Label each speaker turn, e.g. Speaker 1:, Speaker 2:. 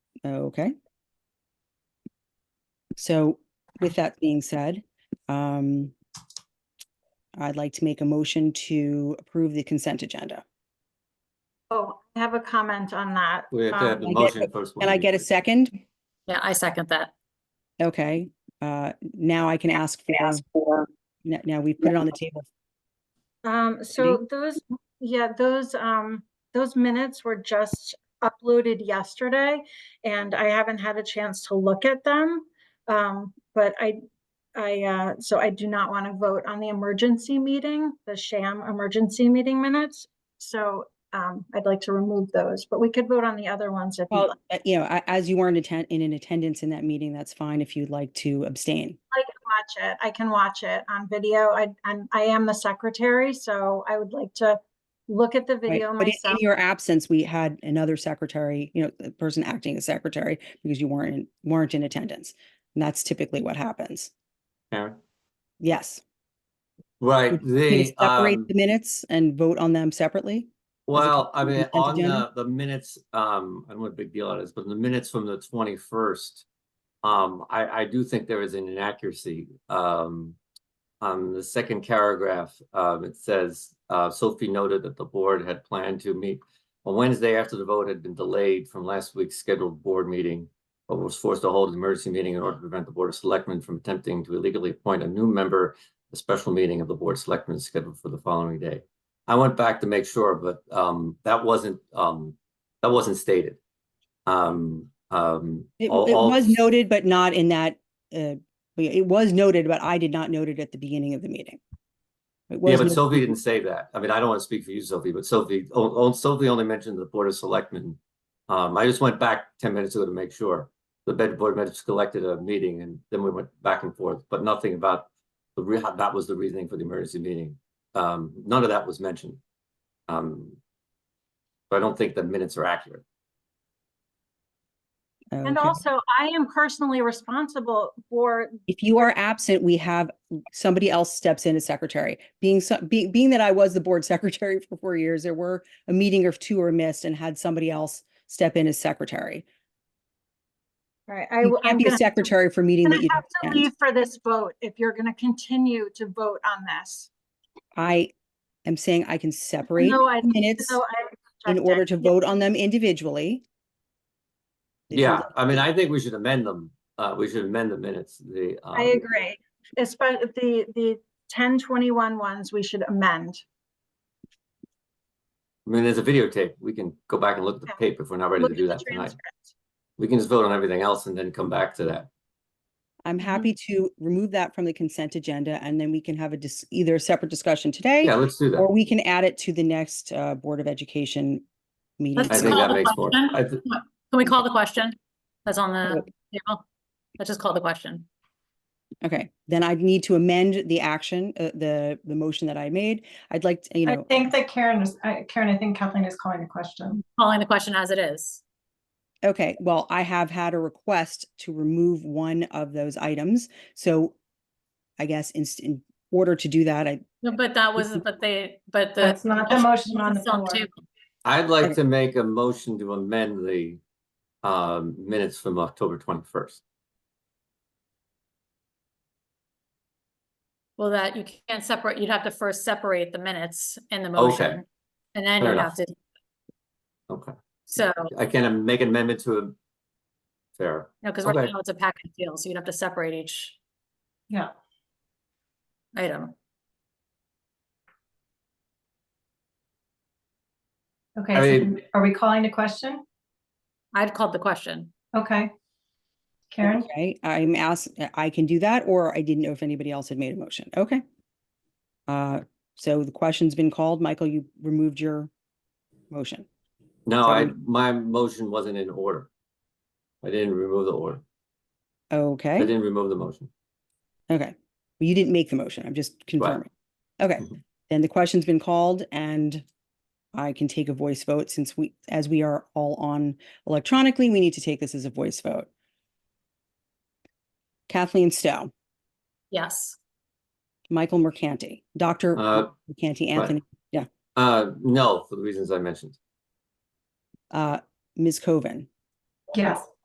Speaker 1: Okay. So with that being said, um, I'd like to make a motion to approve the consent agenda.
Speaker 2: Oh, I have a comment on that.
Speaker 3: We have to have the
Speaker 2: Um,
Speaker 1: I get-
Speaker 3: motion first.
Speaker 1: Can I get a second?
Speaker 4: Yeah, I second that.
Speaker 1: Okay, uh, now I can ask for, now, now we put it on the table.
Speaker 2: Um, so those, yeah, those, um, those minutes were just uploaded yesterday and I haven't had a chance to look at them. Um, but I, I, uh, so I do not want to vote on the emergency meeting, the sham emergency meeting minutes. So, um, I'd like to remove those, but we could vote on the other ones if you
Speaker 1: Well,
Speaker 2: like.
Speaker 1: uh, you know, a- as you weren't attend, in an attendance in that meeting, that's fine if you'd like to abstain.
Speaker 2: I can watch it. I can watch it on video. I, I'm, I am the secretary, so I would like to look at the
Speaker 1: right?
Speaker 2: video
Speaker 1: But in- in
Speaker 2: myself.
Speaker 1: your absence, we had another secretary, you know, the person acting as secretary because you weren't, in- weren't in attendance. And that's typically what happens.
Speaker 3: Karen?
Speaker 1: Yes.
Speaker 3: Right,
Speaker 1: Can you
Speaker 3: the,
Speaker 1: Separate
Speaker 3: um,
Speaker 1: the minutes and vote on them separately?
Speaker 3: well, I mean,
Speaker 1: consent
Speaker 3: on the,
Speaker 1: agenda?
Speaker 3: the minutes, um, I don't know what big deal it is, but the minutes from the twenty-first. Um, I, I do think there is an inaccuracy, um, on the second paragraph, um, it says, uh, Sophie noted that the board had planned to meet on Wednesday after the vote had been delayed from last week's scheduled board meeting, but was forced to hold an emergency meeting in order to prevent the Board of Selectmen from attempting to illegally appoint a new member. The special meeting of the Board of Selectmen is scheduled for the following day. I went back to make sure, but um, that wasn't, um, that wasn't stated. Um, um.
Speaker 1: It, it
Speaker 3: all- all-
Speaker 1: was noted, but not in that, uh, it was noted, but I did not note it at the beginning of the meeting. It
Speaker 3: Yeah,
Speaker 1: was
Speaker 3: but
Speaker 1: noted-
Speaker 3: Sophie didn't say that. I mean, I don't want to speak for you, Sophie, but Sophie, oh, oh, Sophie only mentioned the Board of Selectmen. Um, I just went back ten minutes ago to make sure. The bed board minutes collected a meeting and then we went back and forth, but nothing about the re, how that was the reasoning for the emergency meeting. Um, none of that was mentioned. Um, but I don't think the minutes are accurate.
Speaker 2: And
Speaker 1: Okay.
Speaker 2: also, I am personally responsible for,
Speaker 1: If you are absent, we have, somebody else steps in as secretary. Being so, being, being that I was the board secretary for four years, there were a meeting or two were missed and had somebody else step in as secretary.
Speaker 2: right, I.
Speaker 1: You
Speaker 2: w- I'm
Speaker 1: can't be a
Speaker 2: gonna have to-
Speaker 1: secretary for a meeting
Speaker 2: I'm
Speaker 1: that
Speaker 2: gonna
Speaker 1: you
Speaker 2: have to
Speaker 1: don't attend.
Speaker 2: leave for this vote if you're gonna continue to vote on this.
Speaker 1: I am saying I can separate
Speaker 2: No, I,
Speaker 1: minutes
Speaker 2: no, I.
Speaker 1: in
Speaker 2: objected.
Speaker 1: order to
Speaker 2: Yeah,
Speaker 1: vote on them individually. If you'd
Speaker 3: Yeah,
Speaker 1: like-
Speaker 3: I mean, I think we should amend them. Uh, we should amend the minutes, the.
Speaker 2: I
Speaker 3: um,
Speaker 2: agree. Especially the, the 10, 21 ones we should amend.
Speaker 3: I mean, there's a videotape. We can go back and look at the
Speaker 2: Yeah.
Speaker 3: tape if we're not ready
Speaker 2: Look
Speaker 3: to
Speaker 2: at
Speaker 3: do
Speaker 2: the
Speaker 3: that tonight.
Speaker 2: transcript.
Speaker 3: We can just vote on everything else and then come back to that.
Speaker 1: I'm
Speaker 4: Mm-hmm.
Speaker 2: Mhm.
Speaker 1: happy to remove that from the consent agenda and then we can have a dis, either a separate discussion today.
Speaker 3: Yeah, let's do that.
Speaker 1: Or we can add it to the next uh Board of Education meeting.
Speaker 3: I
Speaker 4: Let's
Speaker 3: think
Speaker 4: call
Speaker 3: that
Speaker 4: the
Speaker 3: makes more.
Speaker 4: question.
Speaker 3: I th-
Speaker 4: Can we call the question? That's on the
Speaker 1: Yep.
Speaker 4: table. Let's just call the question.
Speaker 1: Okay, then I'd need to amend the action, uh, the, the motion that I made. I'd like, to, you
Speaker 5: I
Speaker 1: know,
Speaker 5: think that Karen was, I- Karen, I think Kathleen is calling the question.
Speaker 4: Calling the question as it is.
Speaker 1: okay, well, I have had a request to remove one of those items. So I guess in, in order to do that, I,
Speaker 4: No, But that was, but they, but the.
Speaker 5: That's not the motion on the
Speaker 4: It's on
Speaker 5: floor.
Speaker 4: the table.
Speaker 3: I'd like to make a motion to amend the um minutes from October twenty-first.
Speaker 4: Well, that you can't separate, you'd have to first separate the minutes in the
Speaker 3: Okay.
Speaker 4: motion. And then
Speaker 3: Fair
Speaker 4: you
Speaker 3: enough.
Speaker 4: have to,
Speaker 3: Okay,
Speaker 4: so,
Speaker 3: I can make an amendment to a fair.
Speaker 4: no, because right
Speaker 3: Okay.
Speaker 4: now it's a package deal, so you'd have to separate each
Speaker 5: Yeah,
Speaker 4: item.
Speaker 5: okay,
Speaker 3: I
Speaker 5: so
Speaker 3: mean-
Speaker 5: then are we calling the question?
Speaker 4: I'd called the question.
Speaker 5: Okay. Karen,
Speaker 1: okay, I'm asked, I can do that, or I didn't know if anybody else had made a motion. Okay. Uh, so the question's been called. Michael, you removed your motion.
Speaker 3: No, I, my motion wasn't in order. I didn't remove the order. I
Speaker 1: Okay.
Speaker 3: didn't remove the motion.
Speaker 1: Okay, well, you didn't make the motion, I'm just confirming. Okay,
Speaker 3: Mhm.
Speaker 1: then the question's been called and I can take a voice vote since we, as we are all on electronically, we need to take this as a voice vote. Kathleen Stowe,
Speaker 4: Yes.
Speaker 1: Michael Mercanti, Dr.
Speaker 3: Uh,
Speaker 1: Mercanti
Speaker 3: right.
Speaker 1: Anthony,
Speaker 3: Uh, no, for the reasons I mentioned.
Speaker 1: uh, Ms. Coven,
Speaker 5: yes.